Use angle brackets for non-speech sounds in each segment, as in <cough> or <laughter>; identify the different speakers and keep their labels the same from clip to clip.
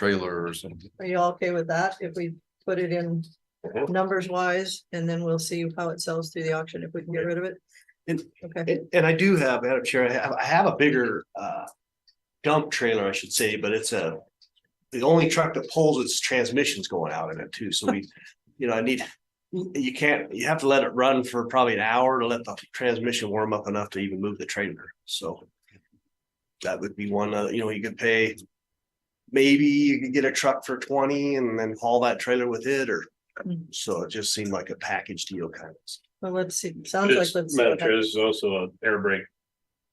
Speaker 1: trailer or something.
Speaker 2: Are you all okay with that? If we put it in
Speaker 3: Mhm.
Speaker 2: numbers wise, and then we'll see how it sells through the auction if we can get rid of it?
Speaker 3: And-
Speaker 2: Okay,
Speaker 3: And, and I do have, Madam Chair, I have, I have a bigger, uh, dump trailer, I should say, but it's a. The only truck that pulls its transmission's going out in it too, so
Speaker 2: <laughs>
Speaker 3: we, you know, I need. You can't, you have to let it run for probably an hour to let the transmission warm up enough to even move the trailer, so. That would be one, uh, you know, you could pay. Maybe you could get a truck for twenty and then haul that trailer with it, or,
Speaker 2: Mm.
Speaker 3: so it just seemed like a package deal kind of.
Speaker 2: well, let's see, sounds like,
Speaker 4: This,
Speaker 2: let's,
Speaker 4: Madam Chair, this is also an air brake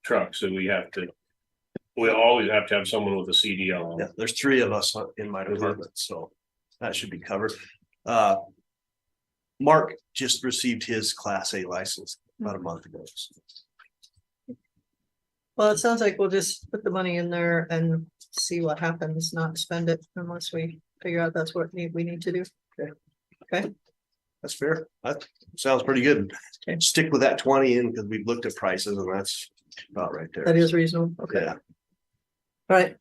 Speaker 4: truck, so we have to. We always have to have someone with a CDL.
Speaker 3: Yeah, there's three of us on- in my department, so that should be covered. Uh. Mark just received his class A license about a month ago.
Speaker 2: well, it sounds like we'll just put the money in there and see what happens, not spend it unless we figure out that's what need, we need to do.
Speaker 3: That's fair. That sounds pretty good. Stick with that twenty in because we've looked at prices and that's about right there.
Speaker 2: That is reasonable, okay,
Speaker 3: Yeah,
Speaker 2: all right,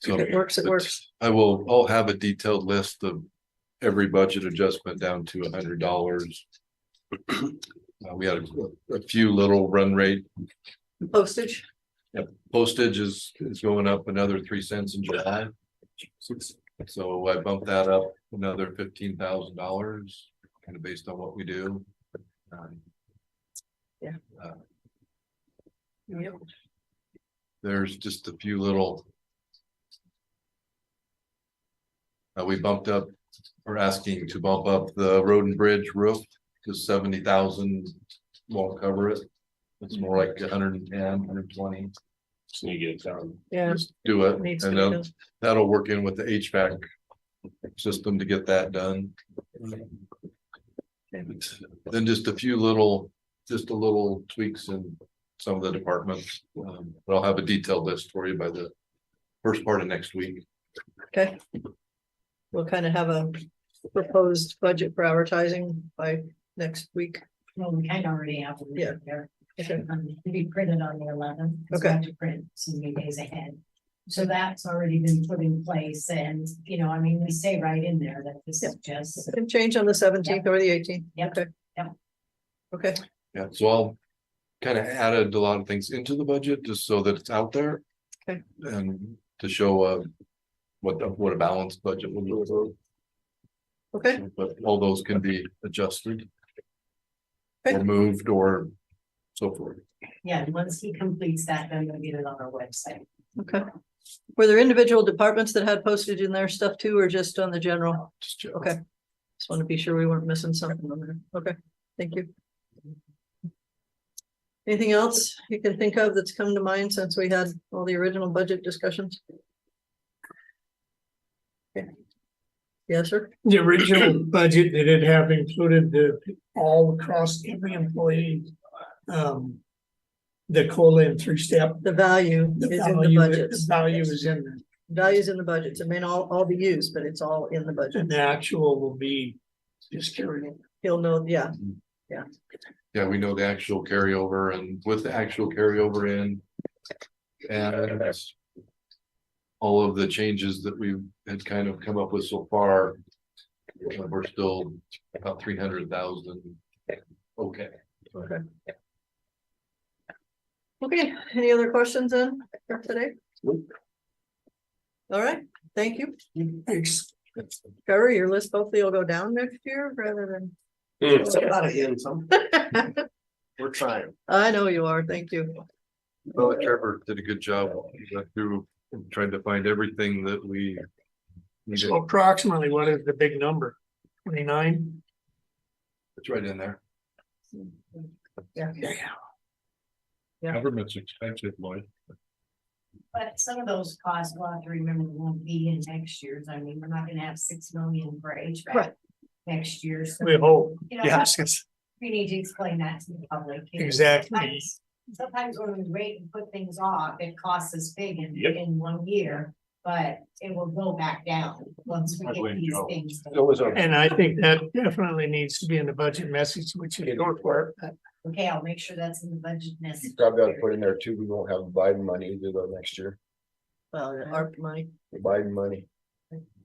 Speaker 1: So
Speaker 2: it works, it works.
Speaker 1: I will, I'll have a detailed list of every budget adjustment down to a hundred dollars. Uh, we had a, a few little run rate
Speaker 2: Postage,
Speaker 1: postage is, is going up another three cents in July. So I bumped that up another fifteen thousand dollars, kind of based on what we do. Um,
Speaker 2: Yep.
Speaker 1: There's just a few little. Uh, we bumped up, we're asking to bump up the road and bridge roof to seventy thousand, won't cover it. It's more like 110, 120.
Speaker 4: So you get it down.
Speaker 2: yeah.
Speaker 1: Just do it,
Speaker 2: needs to
Speaker 1: and
Speaker 2: be
Speaker 1: then
Speaker 2: done.
Speaker 1: that'll work in with the HVAC system to get that done. Then just a few little, just a little tweaks in some of the departments, um, but I'll have a detailed list for you by the first part of next week.
Speaker 2: Okay. We'll kind of have a proposed budget for advertising by next week.
Speaker 5: Well, we kind of already have. one
Speaker 2: Yeah.
Speaker 5: there.
Speaker 2: Okay.
Speaker 5: Um, To be printed on the eleventh.
Speaker 2: Okay.
Speaker 5: To print so many days ahead. So that's already been put in place and, you know, I mean, we say right in there that this is just.
Speaker 2: Can change on the seventeenth or the eighteenth.
Speaker 5: Yep.
Speaker 2: Okay.
Speaker 5: Yep.
Speaker 2: Okay,
Speaker 1: Yeah, so I'll kind of added a lot of things into the budget just so that it's out there.
Speaker 2: Okay.
Speaker 1: And to show uh what the- what a balanced budget would look like.
Speaker 2: okay,
Speaker 1: But all those can be adjusted.
Speaker 2: Okay.
Speaker 1: Or moved or so forth.
Speaker 5: Yeah, and once he completes that, then we'll get it on our website.
Speaker 2: okay. Were there individual departments that had postage in their stuff too, or just on the general?
Speaker 1: Just check.
Speaker 2: Okay. Just want to be sure we weren't missing something on there. Okay, thank you. Anything else you can think of that's come to mind since we had all the original budget discussions? Okay. Yes, sir.
Speaker 6: The original budget that it have included the all across every employee. Um. The COLA and three step.
Speaker 2: The value
Speaker 6: The
Speaker 2: is in the
Speaker 6: value, the
Speaker 2: budgets.
Speaker 6: value is in there
Speaker 2: Values in the budgets. It may not all, all be used, but it's all in the budget.
Speaker 6: and the actual will be just carried over.
Speaker 2: He'll know, yeah,
Speaker 1: Yeah, we know the actual carryover and with the actual carryover in. And. All of the changes that we had kind of come up with so far. uh, We're still about three hundred thousand. Okay.
Speaker 2: Okay, any other questions then for today?
Speaker 3: Nope.
Speaker 2: All right, thank you.
Speaker 6: Thanks.
Speaker 2: Trevor, your list hopefully will go down next year rather
Speaker 3: It's about a hint, some-
Speaker 2: than.
Speaker 3: we're trying.
Speaker 2: I know you are, thank you.
Speaker 1: Well, Trevor did a good job He went through and tried to find everything that we. needed.
Speaker 6: So approximately what is the big number? Twenty-nine?
Speaker 1: It's right in there.
Speaker 6: Yeah.
Speaker 2: Yeah.
Speaker 1: Government's expensive, Lloyd.
Speaker 5: But some of those costs, we'll have to remember, won't be in next year's. I mean, we're not gonna have six million for HVAC.
Speaker 2: Right.
Speaker 5: Next year, so,
Speaker 6: We hope.
Speaker 5: you know,
Speaker 6: Yes, yes,
Speaker 5: we need to explain that to the public. you know.
Speaker 6: exactly.
Speaker 5: Sometimes- Sometimes when we wait and put things off, it costs us big in,
Speaker 4: Yep.
Speaker 5: in one year, but it will go back down once we
Speaker 4: I
Speaker 5: get
Speaker 4: believe
Speaker 5: these
Speaker 4: Joe.
Speaker 5: things. done.
Speaker 4: was a.
Speaker 6: And I think that definitely needs to be in the budget message, which is your part.
Speaker 5: Okay, I'll make sure that's in the budget next.
Speaker 7: You probably ought to put in there too, we won't have Biden money either though next year,
Speaker 2: Well, the ARP money,
Speaker 7: Biden money.